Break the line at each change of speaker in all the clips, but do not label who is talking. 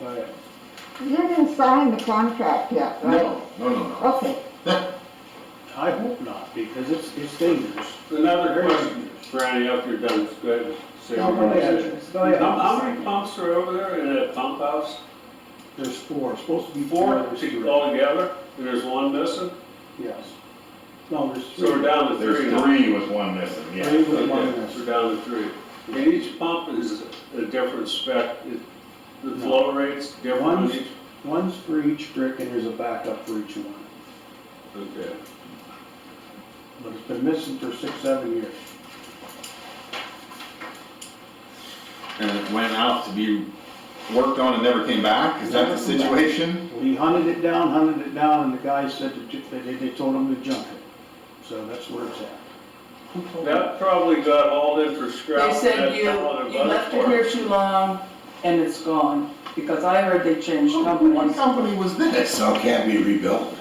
yeah.
You didn't sign the contract yet, right?
No, no, no, no.
Okay,
I hope not, because it's, it's dangerous.
Another question, Brandy, after you're done, go ahead. and say
No,
your
go ahead.
question.
Go ahead.
How, how many pumps are over there in that pump house?
There's four, supposed to be four.
Four
There's three.
altogether, and there's one missing?
Yes. No, there's
So we're
three.
down to three
There's
now.
three with one missing,
Three
yeah.
with one
Okay,
miss.
We're down to three. And each pump is a different spec, It- the
No.
flow rate's different on
One's,
each?
one's for each brick and there's a backup for each one.
Okay.
But it's been missing for six, seven years.
And it went out to be worked on and never came back, is that the
Never came back.
situation?
We hunted it down, hunted it down, and the guy said to ju- they, they told him to junk it. So that's where it's at.
That probably got hauled in for scrap.
They said you, you left it here too long and it's gone, because I heard they changed
Oh,
What
companies.
company was this?
So it can't be rebuilt?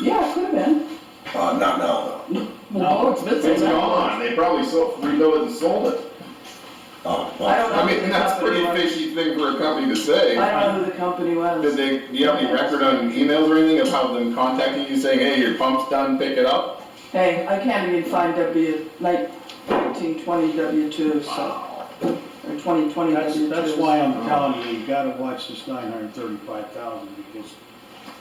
Yeah, it could have been.
Uh, not now, though.
Well, it's been
It's
so long.
gone, they probably sold, rebuilt it and sold it.
Oh,
I
well,
don't know
I
who
mean,
the
that's a
company
pretty
was.
fishy thing for a company to say.
I don't know who the company
Did
was.
they, do you have any record on emails or anything about them contacting you saying, hey, your pump's done, pick it up?
Hey, I can't even find W, like nineteen twenty W two, so, or twenty twenty W
That's,
two.
that's why I'm telling you, you gotta watch this nine hundred thirty-five thousand, because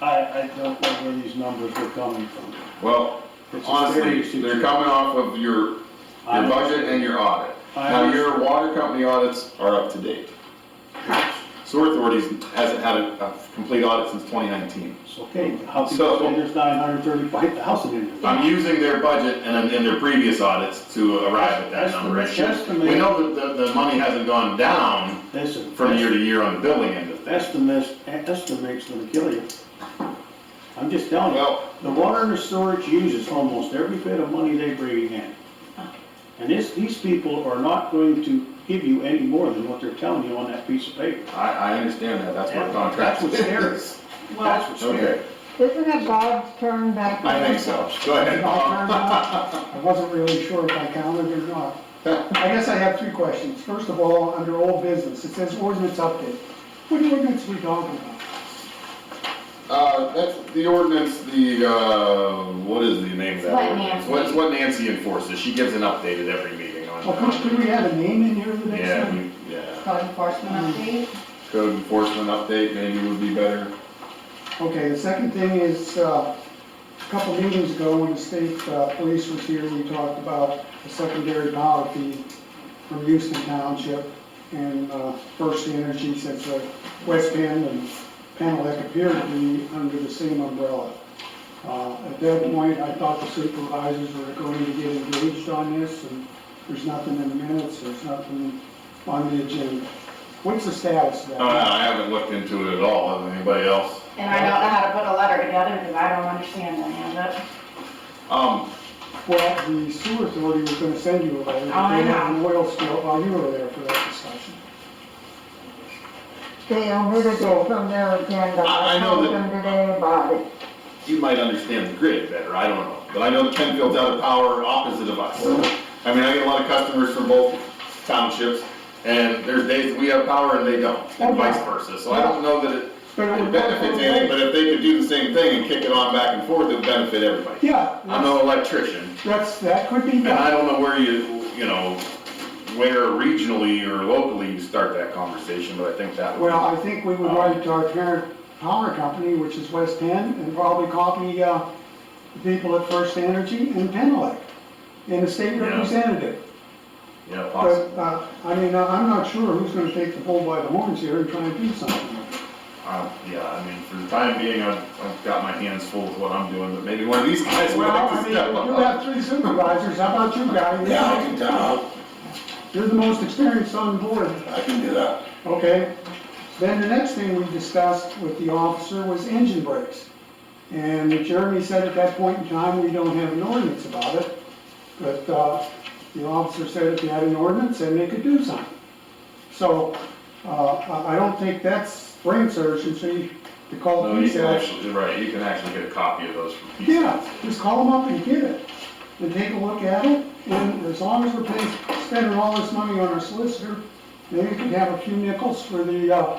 I, I don't know where these numbers are coming from.
Well,
It's a
honestly,
serious
they're
situation.
coming off of your, your
I-
budget and your audit.
I
Now,
under-
Uh, your water company audits are up to date. Sewer authorities hasn't had a, a complete audit since twenty nineteen.
It's okay, how can you
So-
say there's nine hundred thirty-five thousand in it?
I'm using their budget and, and their previous audits to arrive at
That's
that
the
number. It
best
should-
estimate.
We know that the, the money hasn't gone down
Listen,
from year to year on the billing end of things.
estimates, estimates gonna kill you. I'm just telling you,
Well,
the water and the storage uses almost every bit of money they bring in. And this, these people are not going to give you any more than what they're telling you on that piece of paper.
I, I understand that, that's what
That-
contract
that's what's
is.
That's what's scary.
Okay,
isn't it Bob's turn back?
I
around?
think so. Go ahead, Bob.
I wasn't really sure if I counted or not. I guess I have three questions. First of all, under old business, it says ordinance update. What ordinance are we talking about?
Uh, that's the ordinance, the, uh, what is the name of that?
What
ordinance?
Nancy-
What- It's what Nancy enforces, she gives an update at every meeting on.
Well, could- could we have a name in here the next
Yeah,
time?
we, yeah,
Code enforcement update?
code enforcement update maybe would be better.
Okay, the second thing is, uh, a couple meetings ago, when the state uh, police was here, we talked about the secondary power feed from Houston Township, and uh, First Energy says that West Penn and Panelec appear to be under the same umbrella. Uh, At that point, I thought the supervisors were going to get engaged on this, and there's nothing in the minutes, there's nothing on the agenda. What's the status of that?
Uh, I haven't looked into it at all, has anybody else?
And I don't know how to put a letter together because I don't understand any of it.
Um,
Well, the sewer authority was gonna send you a letter. but
Oh, I
They had an
know.
oil spill while you were there for that discussion.
They omitted it from their agenda.
I- I know
told
that-
them today about it.
you might understand the grid better, I don't know, but I know the Penfield's out of power opposite of us. I mean, I get a lot of customers from both townships, and there's days that we have power and they don't, and vice versa, so I don't know that it
But it
it
would go
benefits
both
anything,
ways.
but if they could do the same thing and kick it on back and forth, it'd benefit everybody.
Yeah,
I'm no electrician,
that's, that could be
and I
done.
don't know where you, you know, where regionally or locally you start that conversation, but I think that would.
Well, I think we would write to our parent power company, which is West Penn, and probably copy, uh, the people at First Energy and Penelec, and the state
Yeah.
representative.
Yeah,
But,
possible.
uh, I mean, I- I'm not sure who's gonna take the bull by the horns here and try and do something.
Uh, yeah, I mean, for the time being, I've, I've got my hands full with what I'm doing, but maybe one of these guys would
Well,
like
I
to
mean,
step
you
up.
have three supervisors, how about you guys?
yeah, I can tell,
You're the most experienced on the board.
I can do that.
Okay, then the next thing we discussed with the officer was engine brakes. And Jeremy said at that point in time, we don't have an ordinance about it, but uh, the officer said if you had an ordinance, then they could do something. So uh, I I don't think that's brain surgery to call
No, you
police
can
out.
actually, right, you can actually get a copy of those from PCS.
Yeah, just call them up and get it, and take a look at it, and as long as we're paying, spending all this money on our solicitor, maybe we could have a few nickels for the, uh,